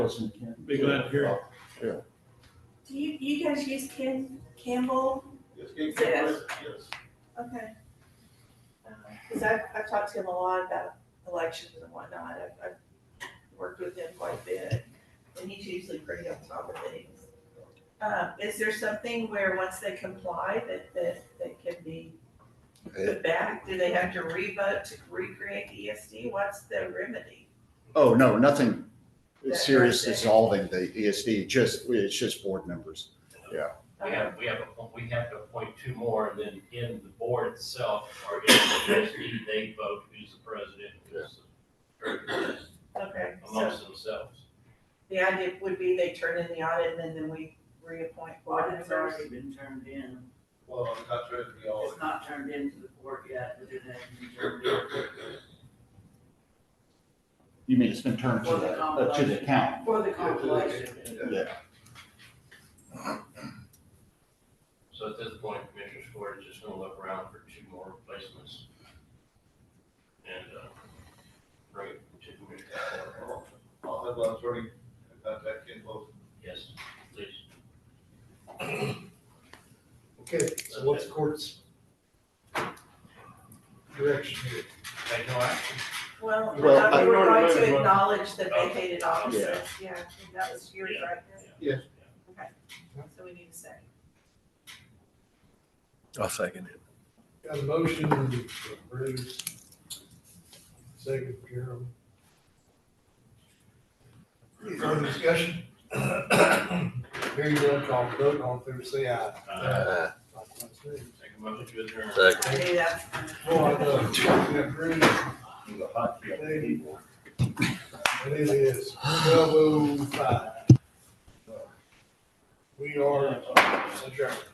Be glad to hear it. Do you, you guys use Ken Campbell? Yes, Yes. yes. Okay. Because I've, I've talked to him a lot about elections and whatnot. I've, I've worked with him quite a bit, and he's usually pretty on top of things. Uh, Is there something where once they comply that, that, that can be put back? Do they have to re-vote to recreate the ESD? What's the remedy? Oh, no, nothing That serious person. dissolving the ESD, just, it's just board members. We have, we have, a- we have to appoint two more, and then in the board itself, or in the trustee, they vote who's the president, who's the treasurer, Um, Okay, so amongst themselves. the idea would be they turn in the audit, and then- then we reappoint Well, board it's members. already been turned in. Well, I'm not trying to be all, It's not turned in to the board yet, but it hasn't been turned in. You mean it's been turned to For the the, uh, to the compilation. county? For the compilation. Yeah, So at this point, Commissioner Square is just gonna look around for two more replacements. And, uh, bring it to Commissioner Square. I'll have an attorney contact Ken Bo. Yes, please. Okay, so what's court's direction here? Take no action. Well, Well, uh, I- we were going Minority to vote. acknowledge the vacated offices, yeah, and that was yours, Yeah. right? Yeah. Okay, so we need to say. I'll second it. Got a motion from Bruce, second from Carol. Any further discussion? Hearing none, call for vote, all in favor, say aye. Uh, Uh, Likewise, nay. Take a moment to adjourn. Second. I knew that's. Boy, I know, yeah, Bruce, Dave. It is twelve oh five. We are adjourned.